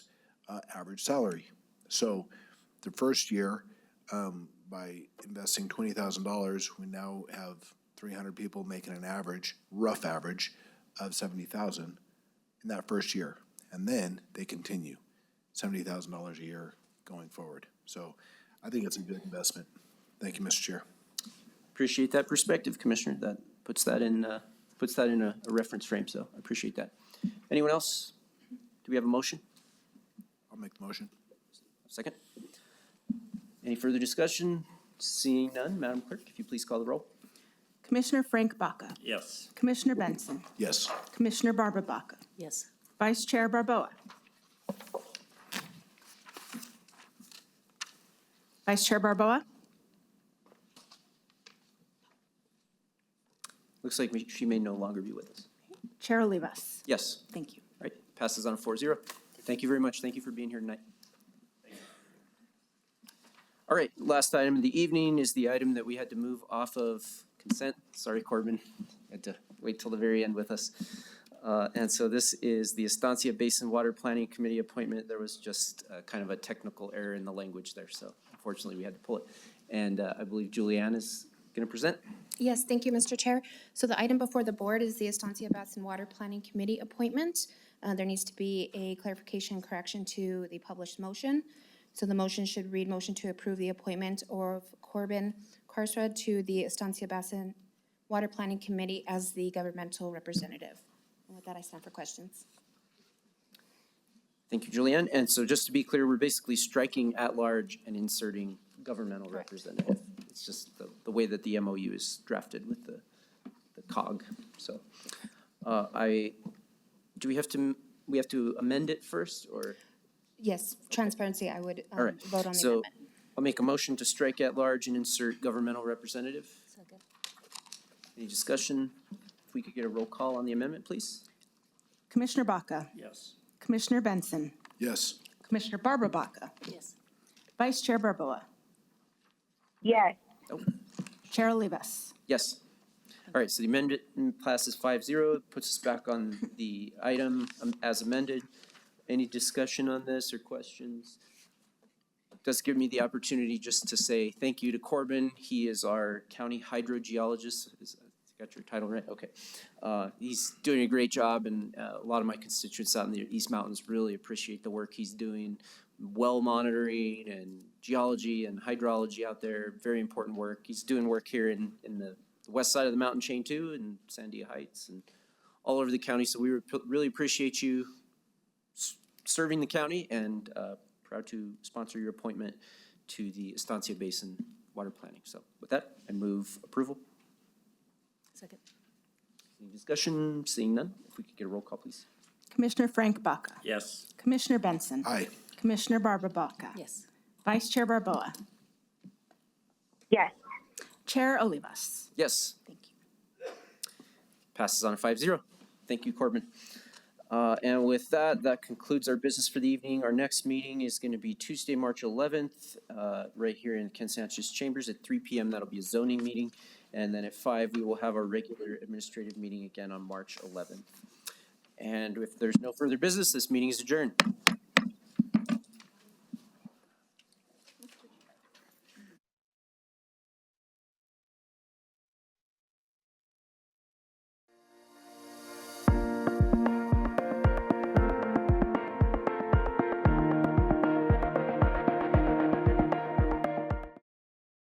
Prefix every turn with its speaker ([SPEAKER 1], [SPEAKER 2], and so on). [SPEAKER 1] uh, average salary. So the first year, um, by investing twenty thousand dollars, we now have three hundred people making an average, rough average, of seventy thousand in that first year. And then they continue, seventy thousand dollars a year going forward. So I think it's a good investment. Thank you, Mr. Chair.
[SPEAKER 2] Appreciate that perspective, Commissioner. That puts that in, uh, puts that in a a reference frame, so I appreciate that. Anyone else? Do we have a motion?
[SPEAKER 1] I'll make the motion.
[SPEAKER 2] Second? Any further discussion? Seeing none, Madam Clerk, if you please call the roll.
[SPEAKER 3] Commissioner Frank Baca.
[SPEAKER 4] Yes.
[SPEAKER 3] Commissioner Benson.
[SPEAKER 1] Yes.
[SPEAKER 3] Commissioner Barbara Baca.
[SPEAKER 5] Yes.
[SPEAKER 3] Vice Chair Barboa. Vice Chair Barboa?
[SPEAKER 2] Looks like we- she may no longer be with us.
[SPEAKER 3] Chair Olivas.
[SPEAKER 2] Yes,
[SPEAKER 3] Thank you.
[SPEAKER 2] right, passes on a four zero. Thank you very much. Thank you for being here tonight. All right, last item of the evening is the item that we had to move off of consent. Sorry, Corbin, had to wait till the very end with us. Uh, and so this is the Estancia Basin Water Planning Committee appointment. There was just uh, kind of a technical error in the language there, so unfortunately we had to pull it. And uh, I believe Julianne is going to present.
[SPEAKER 6] Yes, thank you, Mr. Chair. So the item before the board is the Estancia Basin Water Planning Committee appointment. Uh, There needs to be a clarification correction to the published motion. So the motion should read, motion to approve the appointment of Corbin Carstred to the Estancia Basin Water Planning Committee as the governmental representative. And with that, I stand for questions.
[SPEAKER 2] Thank you, Julianne. And so just to be clear, we're basically striking at-large and inserting governmental representative. It's just the, the way that the MOU is drafted with the, the cog, so. Uh, I, do we have to, m- we have to amend it first, or?
[SPEAKER 6] Yes, transparency, I would um,
[SPEAKER 2] All right.
[SPEAKER 6] vote on the
[SPEAKER 2] So
[SPEAKER 6] amendment.
[SPEAKER 2] I'll make a motion to strike at-large and insert governmental representative.
[SPEAKER 5] Second.
[SPEAKER 2] Any discussion? If we could get a roll call on the amendment, please?
[SPEAKER 3] Commissioner Baca.
[SPEAKER 4] Yes.
[SPEAKER 3] Commissioner Benson.
[SPEAKER 1] Yes.
[SPEAKER 3] Commissioner Barbara Baca.
[SPEAKER 5] Yes.
[SPEAKER 3] Vice Chair Barboa.
[SPEAKER 7] yes,
[SPEAKER 2] Nope.
[SPEAKER 3] Chair Olivas.
[SPEAKER 2] Yes. All right, so the amendment passes five zero, puts us back on the item um, as amended. Any discussion on this or questions? Does give me the opportunity just to say thank you to Corbin. He is our county hydrogeologist. Is- Got your title right? Okay. Uh, He's doing a great job and uh, a lot of my constituents out in the East Mountains really appreciate the work he's doing. Well monitoring and geology and hydrology out there, very important work. He's doing work here in, in the west side of the mountain chain too, in Sandia Heights and all over the county. So we rep- really appreciate you s- serving the county and uh, proud to sponsor your appointment to the Estancia Basin Water Planning. So with that, I move approval.
[SPEAKER 5] Second.
[SPEAKER 2] Any discussion? Seeing none, if we could get a roll call, please.
[SPEAKER 3] Commissioner Frank Baca.
[SPEAKER 4] Yes.
[SPEAKER 3] Commissioner Benson.
[SPEAKER 1] Aye.
[SPEAKER 3] Commissioner Barbara Baca.
[SPEAKER 5] Yes.
[SPEAKER 3] Vice Chair Barboa.
[SPEAKER 7] yes,
[SPEAKER 3] Chair Olivas.
[SPEAKER 2] Yes. Thank you. Passes on a five zero. Thank you, Corbin. Uh, and with that, that concludes our business for the evening. Our next meeting is going to be Tuesday, March eleventh, uh, right here in Ken Sanchez Chambers at three P M. That'll be a zoning meeting. And then at five, we will have our regular administrative meeting again on March eleventh. And if there's no further business, this meeting is adjourned.